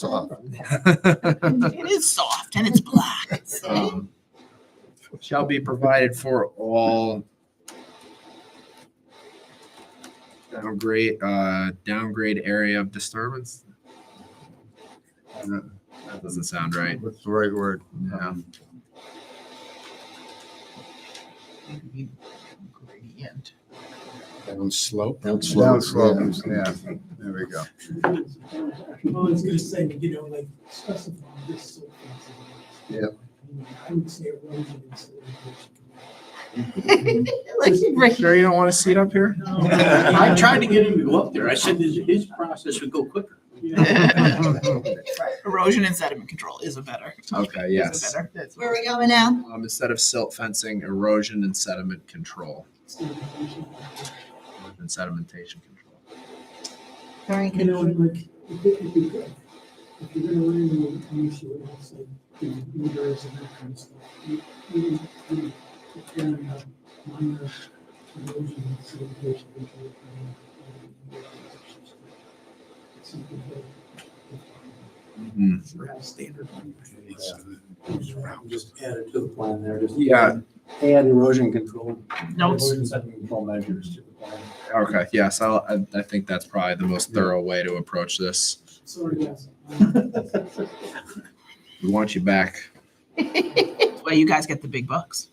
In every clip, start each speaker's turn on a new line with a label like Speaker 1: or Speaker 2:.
Speaker 1: soft.
Speaker 2: Oh,
Speaker 3: It is soft and it's black.
Speaker 1: Um,
Speaker 2: Shall be provided for all. Downgrade, uh, downgrade area of disturbance. That that doesn't sound right.
Speaker 1: What's the right word?
Speaker 2: Yeah.
Speaker 3: Gradient.
Speaker 4: Down slope.
Speaker 1: Down
Speaker 4: slope.
Speaker 1: slope, yeah, there we go.
Speaker 5: Well, I was gonna say, you know, like specify this sort of thing.
Speaker 1: Yep.
Speaker 5: I would say erosion and solidation.
Speaker 3: Like, right.
Speaker 2: Sure you don't want to see it up here?
Speaker 4: I tried to get him to go up there. I said his, his process would go quicker.
Speaker 3: Erosion and sediment control is a better.
Speaker 2: Okay,
Speaker 3: is a
Speaker 2: yes.
Speaker 3: better- that's-
Speaker 6: Where are we going now?
Speaker 2: Um, instead of silt fencing, erosion and sediment control, and sedimentation control.
Speaker 6: Very
Speaker 5: You know, and like, if it- if you're, if you're gonna run into an issue, it also, you know, meters and that kind of stuff. You- you- you- if you're gonna have minor erosion and solidation control, uh, you know, it's Something that. uh,
Speaker 2: Mhm.
Speaker 5: Perhaps standard.
Speaker 4: Just add it to the plan there, just.
Speaker 2: Yeah.
Speaker 4: Add erosion control.
Speaker 3: Notes.
Speaker 4: Erosion sediment control measures to the plan.
Speaker 2: Okay, yes, I'll, I, I think that's probably the most thorough way to approach this.
Speaker 5: Sorry, yes.
Speaker 2: We want you back.
Speaker 3: That's why you guys get the big bucks.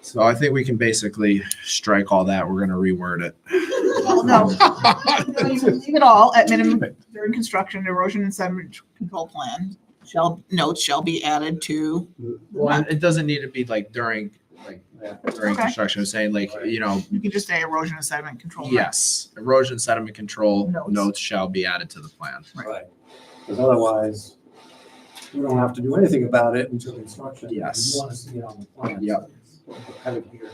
Speaker 2: So I think we can basically strike all that. We're gonna reword it.
Speaker 3: Well, no. No, you can Leave it all at minimum during construction, erosion and sediment control plan shall, notes shall be added to.
Speaker 2: Well, it doesn't need to be like during, like during
Speaker 3: Okay.
Speaker 2: construction. I'm saying like, you know,
Speaker 3: You can just say erosion and sediment control.
Speaker 2: yes, erosion sediment control
Speaker 3: Oh, Notes.
Speaker 2: notes shall be added to the plan.
Speaker 4: Right. Because otherwise, we don't have to do anything about it until construction.
Speaker 2: Yes.
Speaker 4: You want to see it on the plan.
Speaker 2: Yep.
Speaker 4: Have it here.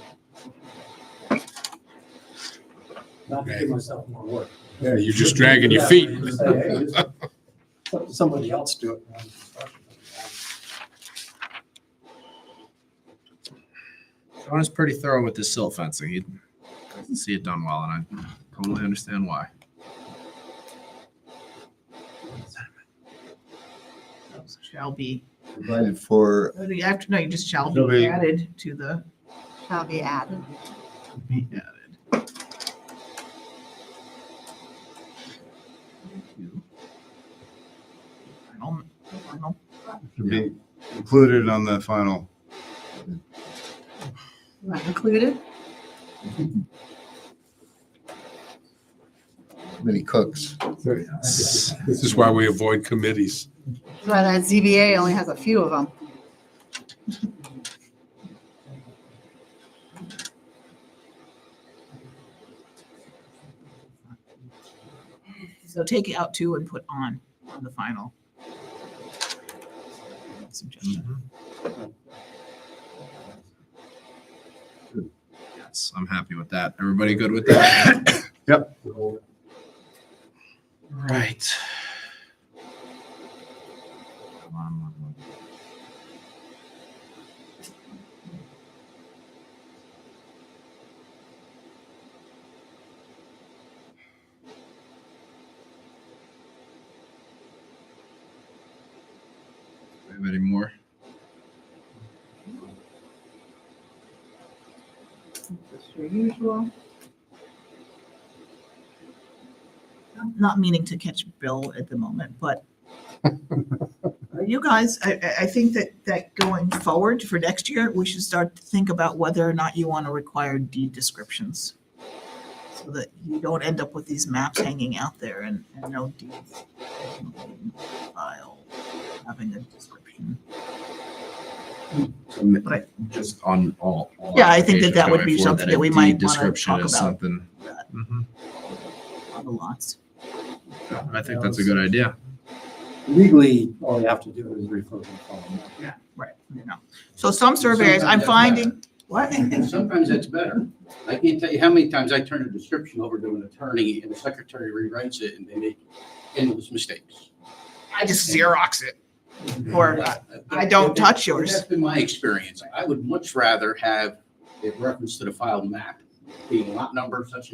Speaker 4: Not to give myself more work.
Speaker 7: Yeah, you're just dragging your feet.
Speaker 4: Just say, hey, just let Somebody else do it. around construction.
Speaker 2: Sean is pretty thorough with his silt fencing. He doesn't see it done well, and I totally understand why.
Speaker 3: Notes Shall be,
Speaker 1: Provided for,
Speaker 3: I think after, no, you just shall
Speaker 1: Shall
Speaker 3: be
Speaker 1: be-
Speaker 3: added to the.
Speaker 6: Shall be added.
Speaker 3: Be added. to Final, final
Speaker 1: to be included on the final.
Speaker 6: Not included?
Speaker 1: Many cooks.
Speaker 2: Yes.
Speaker 7: This is why we avoid committees.
Speaker 6: That's why that ZBA only has a few of them.
Speaker 3: So take it out two and put on on the final. Suggestion.
Speaker 2: Mm-hmm. Yes, I'm happy with that. Everybody good with that? Right. Come on, come on, come on. We have any more?
Speaker 6: Just your usual.
Speaker 3: I'm Not meaning to catch Bill at the moment, but you guys, I, I- I think that, that going forward for next year, we should start to think about whether or not you want to require deed descriptions. So that you don't end up with these maps hanging out there and, and no deeds. File, having a description. Right.
Speaker 2: Just on all. all
Speaker 3: Yeah, I think
Speaker 2: applications
Speaker 3: that that would
Speaker 2: going forward,
Speaker 3: be something
Speaker 2: a
Speaker 3: that we
Speaker 2: deed
Speaker 3: might wanna
Speaker 2: description
Speaker 3: talk
Speaker 2: is
Speaker 3: about.
Speaker 2: Something. Mhm.
Speaker 3: on the lots.
Speaker 2: Mm-hmm. I think that's a good idea.
Speaker 4: Legally, all you have to do is refer to the plan.
Speaker 3: Right, you know. So some surveyors, I'm finding, what?
Speaker 8: Sometimes that's better. I can't tell you how many times I turn a description over to an attorney and the secretary rewrites it and they make endless mistakes.
Speaker 3: I just Xerox it. Or I don't touch yours.
Speaker 8: That's been my experience. I would much rather have it reference to the file map being lot number such and